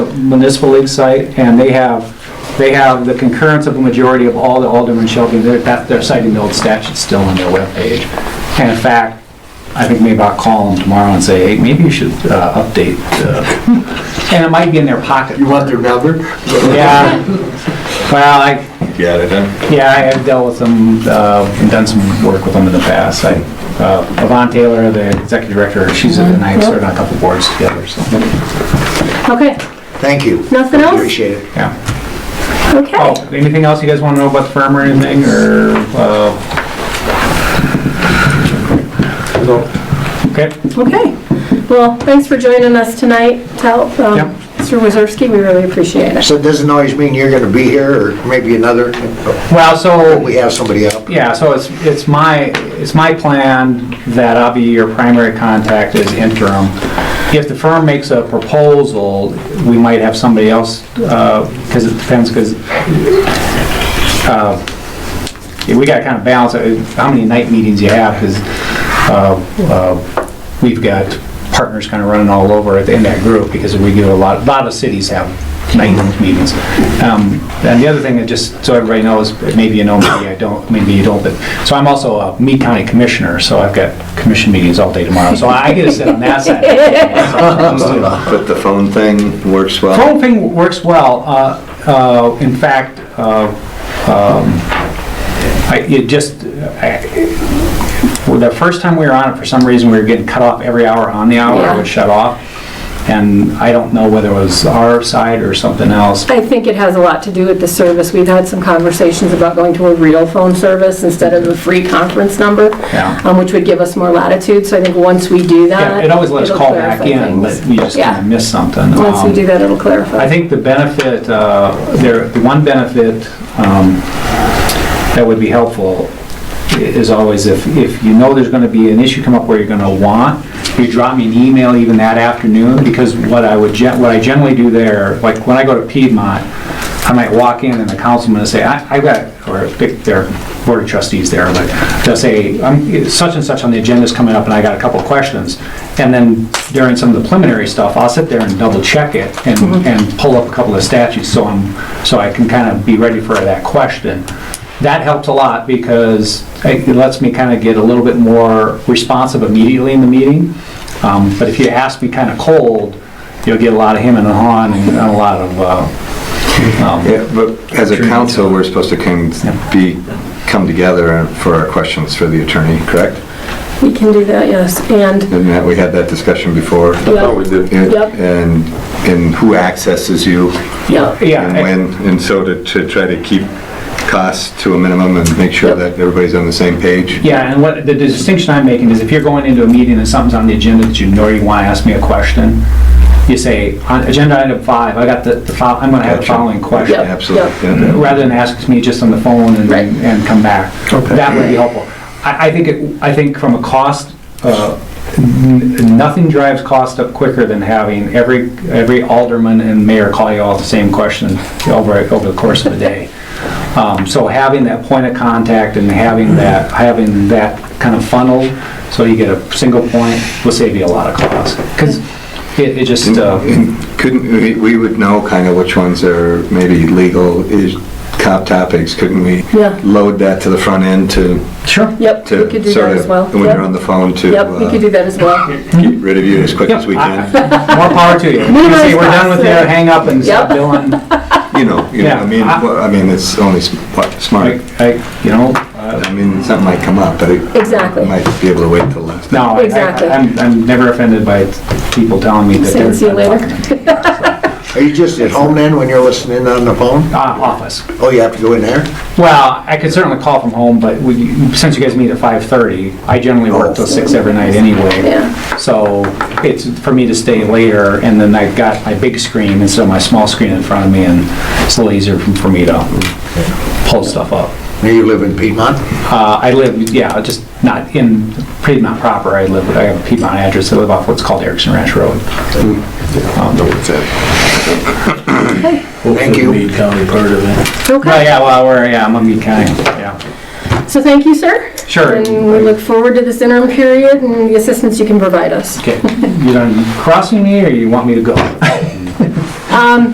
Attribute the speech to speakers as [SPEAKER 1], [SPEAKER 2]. [SPEAKER 1] municipal league site, and they have, they have the concurrence of a majority of all the Alderman Shelby, they're, that- they're citing the old statute still on their webpage. And in fact, I think maybe I'll call them tomorrow and say, hey, maybe you should uh, update, uh," and it might be in their pocket.
[SPEAKER 2] You want their number?
[SPEAKER 1] Yeah, well, I,
[SPEAKER 3] Got it, huh?
[SPEAKER 1] yeah, I have dealt with them, uh, and done some work with them in the past. I, uh, Yvonne Taylor, the executive director, she's at the night, served on a couple boards together, so,
[SPEAKER 4] Okay,
[SPEAKER 2] Thank you.
[SPEAKER 4] Nothing else?
[SPEAKER 2] Appreciate it.
[SPEAKER 1] yeah.
[SPEAKER 4] okay.
[SPEAKER 1] Oh, anything else you guys want to know about the firm or anything, or, uh? Okay,
[SPEAKER 4] Okay. Well, thanks for joining us tonight, Tal,
[SPEAKER 1] Yep.
[SPEAKER 4] um, Mr. Wazorski, we really appreciate it.
[SPEAKER 2] So it doesn't always mean you're gonna be here, or maybe another,
[SPEAKER 1] well, so.
[SPEAKER 2] we have somebody up.
[SPEAKER 1] Yeah, so it's, it's my, it's my plan that I'll be your primary contact as interim. If the firm makes a proposal, we might have somebody else, because it depends, because we got to kind of balance it, how many night meetings you have, because Um, we've got partners kind of running all over it in that group, because we get a lot, a lot of cities have night meetings. Um, And the other thing that just, so everybody knows, maybe you know, maybe I don't, maybe you don't, but, so I'm also a Mead County Commissioner, so I've got commission meetings all day tomorrow, so I get to sit on that side.
[SPEAKER 3] But the phone thing works well.
[SPEAKER 1] Phone thing works well. Uh, uh, In fact, uh, um, I- it just, I- well, the first time we were on it, for some reason, we were getting cut off every hour on the hour,
[SPEAKER 4] Yeah.
[SPEAKER 1] it would shut off. And I don't know whether it was our side or something else.
[SPEAKER 4] I think it has a lot to do with the service. We've had some conversations about going to a real phone service instead of a free conference number,
[SPEAKER 1] Yeah.
[SPEAKER 4] um, which would give us more latitude, so I think once we do
[SPEAKER 1] Yeah,
[SPEAKER 4] that.
[SPEAKER 1] It always lets us
[SPEAKER 4] it'll
[SPEAKER 1] call back
[SPEAKER 4] clarify
[SPEAKER 1] in,
[SPEAKER 4] things.
[SPEAKER 1] but we just kind
[SPEAKER 4] Yeah.
[SPEAKER 1] of miss something.
[SPEAKER 4] Once
[SPEAKER 1] Um,
[SPEAKER 4] we do that, it'll
[SPEAKER 1] I
[SPEAKER 4] clarify.
[SPEAKER 1] think the benefit, uh, there, the one benefit um, that would be helpful i- is always if, if you know there's going to be an issue come up where you're going to want, you drop me an email even that afternoon, because what I would, gen- what I generally do there, like when I go to Piedmont, I might walk in and the councilman will say, I, I've got, or pick their board of trustees there, but they'll say, I'm, such and such on the agenda's coming up and I got a couple of questions. And then during some of the preliminary stuff, I'll sit there and double check it and, and pull up a couple of statutes so I'm, so I can kind of be ready for that question. That helps a lot because it it lets me kind of get a little bit more responsive immediately in the meeting. Um, But if you ask me kind of cold, you'll get a lot of him and hawing and a lot of, uh, um,
[SPEAKER 3] Yeah, but as a council, we're supposed to come, be, come together for our questions for the attorney, correct?
[SPEAKER 4] We can do that, yes, and,
[SPEAKER 3] Didn't that- we had that discussion before?
[SPEAKER 4] thought we
[SPEAKER 3] did.
[SPEAKER 4] Yep.
[SPEAKER 3] And, and who accesses you
[SPEAKER 4] yeah.
[SPEAKER 1] yeah.
[SPEAKER 3] and
[SPEAKER 1] I-
[SPEAKER 3] when, and so to, to try to keep costs to a minimum and make sure
[SPEAKER 4] Yep.
[SPEAKER 3] that everybody's on the same page.
[SPEAKER 1] Yeah, and what, the distinction I'm making is if you're going into a meeting and something's on the agenda that you know you want to ask me a question, you say, on agenda item five, I got the, the fol- I'm going to have the
[SPEAKER 3] Gotcha.
[SPEAKER 1] following question.
[SPEAKER 4] Yep.
[SPEAKER 3] Absolutely.
[SPEAKER 4] Yep.
[SPEAKER 3] yeah.
[SPEAKER 1] rather than ask me just on the phone and,
[SPEAKER 4] Right.
[SPEAKER 1] and come back.
[SPEAKER 3] Okay.
[SPEAKER 1] That would be helpful. I, I think, it- I think from a cost, uh, n- nothing drives cost up quicker than having every, every alderman and mayor call you all the same question over, over the course of the day. Um, So having that point of contact and having that, having that kind of funnel, so you get a single point, will save you a lot of cost. Because it, it just, uh,
[SPEAKER 3] And Couldn't, we- we would know kind of which ones are maybe legal is, top topics, couldn't we?
[SPEAKER 4] Yeah.
[SPEAKER 3] Load that to the front end to,
[SPEAKER 1] sure,
[SPEAKER 4] Yep, we could
[SPEAKER 3] to
[SPEAKER 4] do that
[SPEAKER 3] sort
[SPEAKER 4] as
[SPEAKER 3] of,
[SPEAKER 4] well.
[SPEAKER 3] when
[SPEAKER 4] Yep.
[SPEAKER 3] you're on the phone to
[SPEAKER 4] Yep, we
[SPEAKER 3] uh,
[SPEAKER 4] could do that as well.
[SPEAKER 3] get rid of you as quick as
[SPEAKER 1] Yep,
[SPEAKER 3] we can.
[SPEAKER 1] I- More power to you. You
[SPEAKER 4] Minimize
[SPEAKER 1] say, we're done with your
[SPEAKER 4] costs,
[SPEAKER 1] hang up and stop
[SPEAKER 4] Yep.
[SPEAKER 1] billing.
[SPEAKER 3] You know, you know, I mean,
[SPEAKER 1] Yeah.
[SPEAKER 3] well, I mean, it's only s- what, smart.
[SPEAKER 1] I, I, you know, uh,
[SPEAKER 3] I mean, something might come up, but it
[SPEAKER 4] Exactly.
[SPEAKER 3] might be able to wait till last.
[SPEAKER 1] no, I- I-
[SPEAKER 4] Exactly.
[SPEAKER 1] I'm, I'm never offended by people telling me that
[SPEAKER 4] Saying
[SPEAKER 1] they're.
[SPEAKER 4] see you later.
[SPEAKER 2] Are you just at home then, when you're listening on the phone?
[SPEAKER 1] Uh, office.
[SPEAKER 2] Oh, you have to go in there?
[SPEAKER 1] Well, I could certainly call from home, but we, since you guys meet at five thirty, I generally work till six every night anyway.
[SPEAKER 4] Yeah.
[SPEAKER 1] So it's for me to stay later and then I've got my big screen instead of my small screen in front of me and it's a little easier for for me to pull stuff up.
[SPEAKER 2] Now you live in Piedmont?
[SPEAKER 1] Uh, I live, yeah, just not in Piedmont proper. I live, I have a Piedmont address. I live off what's called Erickson Ranch Road. Um,
[SPEAKER 2] Thank you.
[SPEAKER 5] Meade County part of it.
[SPEAKER 1] Well,
[SPEAKER 4] Okay,
[SPEAKER 1] yeah, well, we're, yeah, I'm on Mead County, yeah.
[SPEAKER 4] so thank you, sir.
[SPEAKER 1] Sure.
[SPEAKER 4] And we look forward to this interim period and the assistance you can provide us.
[SPEAKER 1] Okay, you done crossing me or you want me to go?
[SPEAKER 4] Um,